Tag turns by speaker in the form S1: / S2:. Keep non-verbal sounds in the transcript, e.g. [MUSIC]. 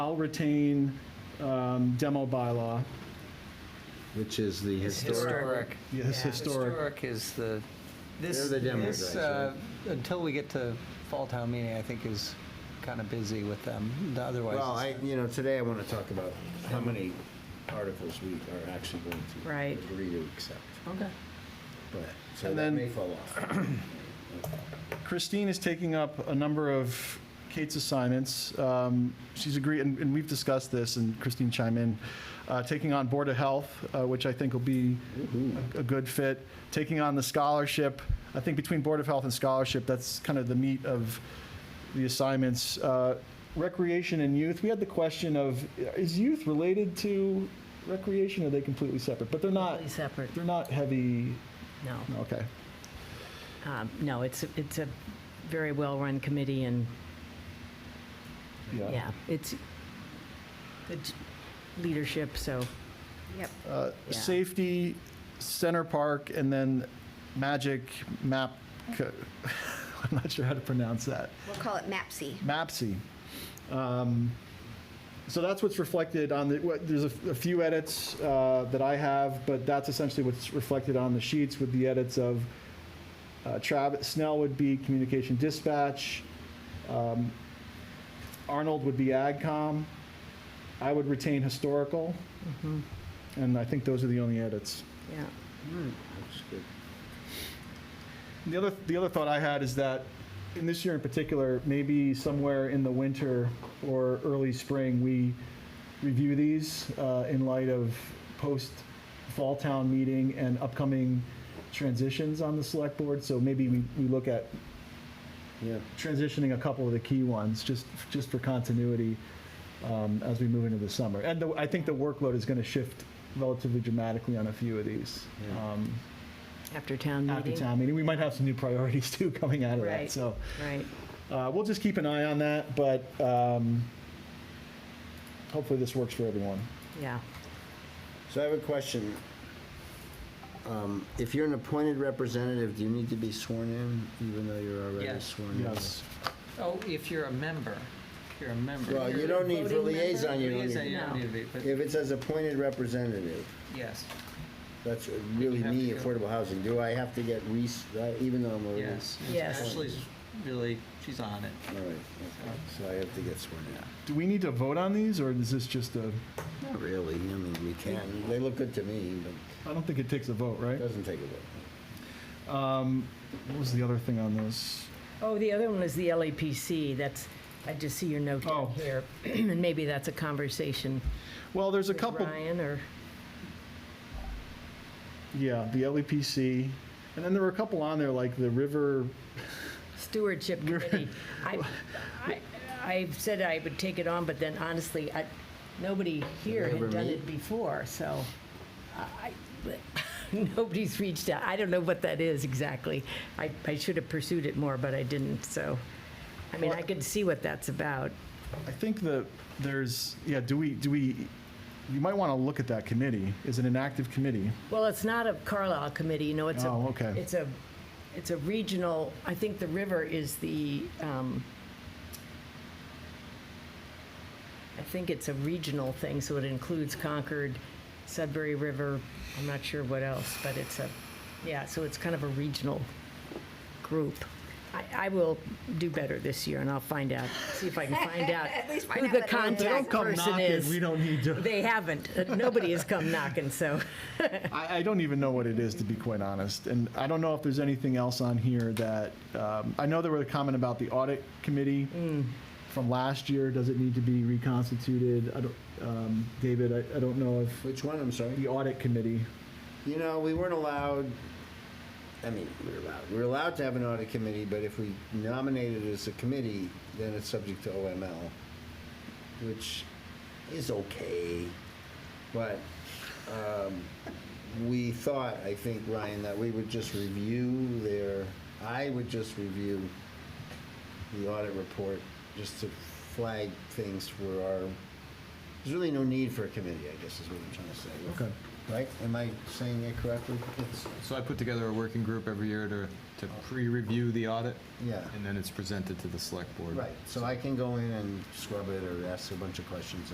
S1: I'll retain um, demo bylaw.
S2: which is the historic.
S3: Historic.
S1: Yes, historic.
S3: Historic is the, this,
S2: They're the demo
S3: this,
S2: guys,
S3: uh, until we get to fall town meeting, I think is kind of busy with them. Otherwise,
S2: Well, I,
S3: it's-
S2: you know, today I want to talk about how many articles we are actually going to.
S4: Right. Oh.
S2: Agree to accept,
S4: Okay.
S2: but, so
S1: And
S2: that
S1: then-
S2: may fall off.
S1: Christine is taking up a number of Kate's assignments. Um, She's agreed, and and we've discussed this, and Christine chime in, uh, taking on Board of Health, uh, which I think will be a good fit, taking on the scholarship. I think between Board of Health and scholarship, that's kind of the meat of the assignments. Uh, Recreation and youth, we had the question of, is youth related to recreation, or are they completely separate? But they're not,
S4: Completely separate,
S1: they're not heavy,
S4: no.
S1: okay.
S4: Um, No, it's, it's a very well-run committee and, yeah, it's good leadership, so. Yep.
S1: Uh,
S4: Yeah.
S1: Safety, Center Park, and then Magic Map, Co- [LAUGHS] I'm not sure how to pronounce that,
S5: We'll call it MAPSI.
S1: MAPSI. Um, So that's what's reflected on the, what- there's a a few edits uh, that I have, but that's essentially what's reflected on the sheets with the edits of uh, Travis, Snell would be Communication Dispatch, um, Arnold would be AgCom, I would retain Historical,
S4: mhm,
S1: and I think those are the only edits.
S4: Yeah.
S2: That's good.
S1: The other, the other thought I had is that, in this year in particular, maybe somewhere in the winter or early spring, we review these uh, in light of post-fall town meeting and upcoming transitions on the select board. So maybe we, we look at
S2: Yeah,
S1: transitioning a couple of the key ones, just, just for continuity um, as we move into the summer. And the- I think the workload is going to shift relatively dramatically on a few of these.
S2: Yeah.
S1: Um,
S4: After town meeting.
S1: after town meeting. We might have some new priorities [LAUGHS] too coming out of that.
S4: Right.
S1: So
S4: Right.
S1: uh, we'll just keep an eye on that, but um, hopefully this works for everyone.
S4: Yeah.
S2: so I have a question. Um, If you're an appointed representative, do you need to be sworn in, even though you're already
S3: Yes.
S2: sworn in?
S3: oh, if you're a member, if you're a member.
S2: Well, you
S3: you're-
S2: don't need for
S4: Voting member?
S2: liaison, you don't
S3: Liaison,
S2: need,
S3: you don't need to be, but
S2: if it says appointed representative,
S3: yes,
S2: that's really
S3: You have
S2: me,
S3: to go.
S2: affordable housing, do I have to get re, even though I'm already?
S3: yes.
S4: Yes.
S3: Ashley's really, she's on it.
S2: All right, okay, so I have to get sworn in.
S1: Do we need to vote on these or is this just a,
S2: Not really, I mean, we can, they look good to me, but
S1: I don't think it takes a vote,
S2: it
S1: right?
S2: doesn't take a vote.
S1: Um, What was the other thing on this?
S4: Oh, the other one is the LAPC. That's, I just see your note
S1: Oh.
S4: down here. [CLEARS THROAT] And maybe that's a conversation
S1: Well, there's a
S4: with
S1: couple,
S4: Ryan or,
S1: yeah, the LEPC. And then there were a couple on there like the river,
S4: Stewardship Committee. I, I, I said I would take it on, but then honestly, I, nobody here
S2: Never
S4: had done
S2: meet.
S4: it before, so I, [LAUGHS] nobody's reached out. I don't know what that is exactly. I, I should have pursued it more, but I didn't, so. I mean, I could see what that's about.
S1: I think the, there's, yeah, do we, do we, you might want to look at that committee. Is it an active committee?
S4: Well, it's not a Carlisle committee, you know, it's a.
S1: Oh, okay.
S4: It's a, it's a regional, I think the river is the, um, I think it's a regional thing, so it includes Concord, Sudbury River, I'm not sure what else, but it's a, yeah, so it's kind of a regional group. I, I will do better this year, and I'll find out, see if I can find
S5: [LAUGHS]
S4: out
S5: At least find
S4: who
S5: out
S4: the
S5: what it is. They
S4: contact person is.
S1: don't need to.
S4: They haven't, nobody has come knocking, so.
S1: I, I don't even know what it is, to be quite honest. And I don't know if there's anything else on here that, um, I know there was a comment about the audit committee from last year. Does it need to be reconstituted? I don't, um, David, I, I don't know if,
S2: Which one, I'm sorry?
S1: the audit committee.
S2: You know, we weren't allowed, I mean, we were allowed, we were allowed to have an audit committee, but if we nominated it as a committee, then it's subject to OML, which is okay, but um, we thought, I think, Ryan, that we would just review their, I would just review the audit report, just to flag things for our There's really no need for a committee, I guess, is what I'm trying to say.
S1: Okay.
S2: Right? Am I saying it correctly? It's-
S3: So I put together a working group every year to, to pre-review the audit.
S2: Yeah.
S3: And then it's presented to the select board.
S2: Right, so I can go in and scrub it or ask a bunch of questions